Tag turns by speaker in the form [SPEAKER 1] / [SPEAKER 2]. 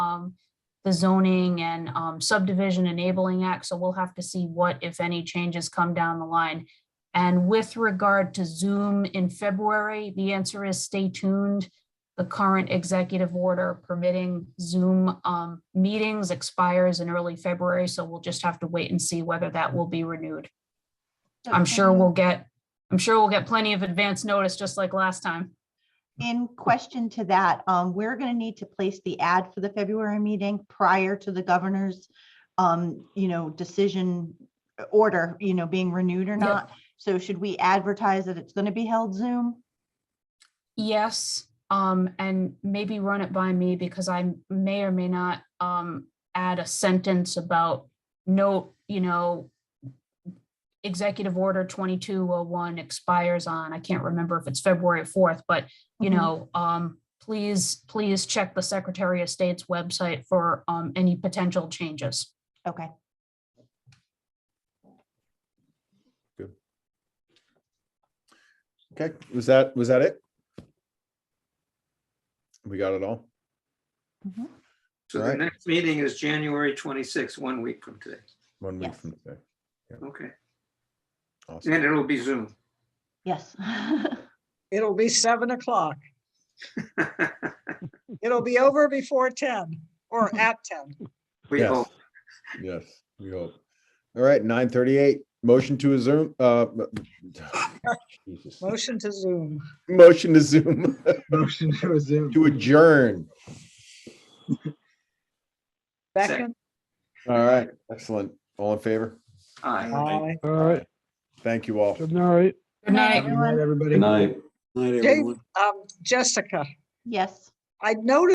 [SPEAKER 1] um, the zoning and um, subdivision enabling act. So we'll have to see what, if any, changes come down the line. And with regard to Zoom in February, the answer is stay tuned. The current executive order permitting Zoom um, meetings expires in early February, so we'll just have to wait and see whether that will be renewed. I'm sure we'll get, I'm sure we'll get plenty of advance notice, just like last time.
[SPEAKER 2] In question to that, um, we're gonna need to place the ad for the February meeting prior to the governor's, um, you know, decision uh, order, you know, being renewed or
[SPEAKER 1] Yep.
[SPEAKER 2] not. So should we advertise that it's gonna be held Zoom?
[SPEAKER 1] Yes, um, and maybe run it by me because I may or may not, um, add a sentence about note, you know, executive order twenty-two oh one expires on, I can't remember if it's February fourth, but you
[SPEAKER 2] Mhm.
[SPEAKER 1] know, um, please, please check the Secretary of State's website for, um, any potential changes.
[SPEAKER 2] Okay,
[SPEAKER 3] Okay, was that, was that it? We got it all?
[SPEAKER 1] Mm-hmm.
[SPEAKER 4] So the
[SPEAKER 3] Right.
[SPEAKER 4] next meeting is January 26, one week from today.
[SPEAKER 3] One week
[SPEAKER 2] Yes.
[SPEAKER 3] from today.
[SPEAKER 4] Okay.
[SPEAKER 3] Awesome.
[SPEAKER 4] And it'll be Zoom.
[SPEAKER 2] yes.
[SPEAKER 5] It'll be seven o'clock. It'll be over before ten or at ten.
[SPEAKER 4] We
[SPEAKER 3] Yes.
[SPEAKER 4] hope.
[SPEAKER 3] Yes, we hope. All right, nine thirty-eight, motion to Zoom, uh. Jesus.
[SPEAKER 5] Motion to Zoom.
[SPEAKER 3] Motion to Zoom,
[SPEAKER 6] Motion to resume.
[SPEAKER 3] to adjourn.
[SPEAKER 5] Second.
[SPEAKER 3] All right, excellent. All in favor?
[SPEAKER 4] Aye.
[SPEAKER 5] Aye.
[SPEAKER 6] All right,
[SPEAKER 3] Thank you all.
[SPEAKER 6] good night.
[SPEAKER 1] Good night.
[SPEAKER 6] Good night, everybody.
[SPEAKER 7] Good night. Night,
[SPEAKER 5] Dave, um, Jessica,
[SPEAKER 2] Yes.
[SPEAKER 5] I noticed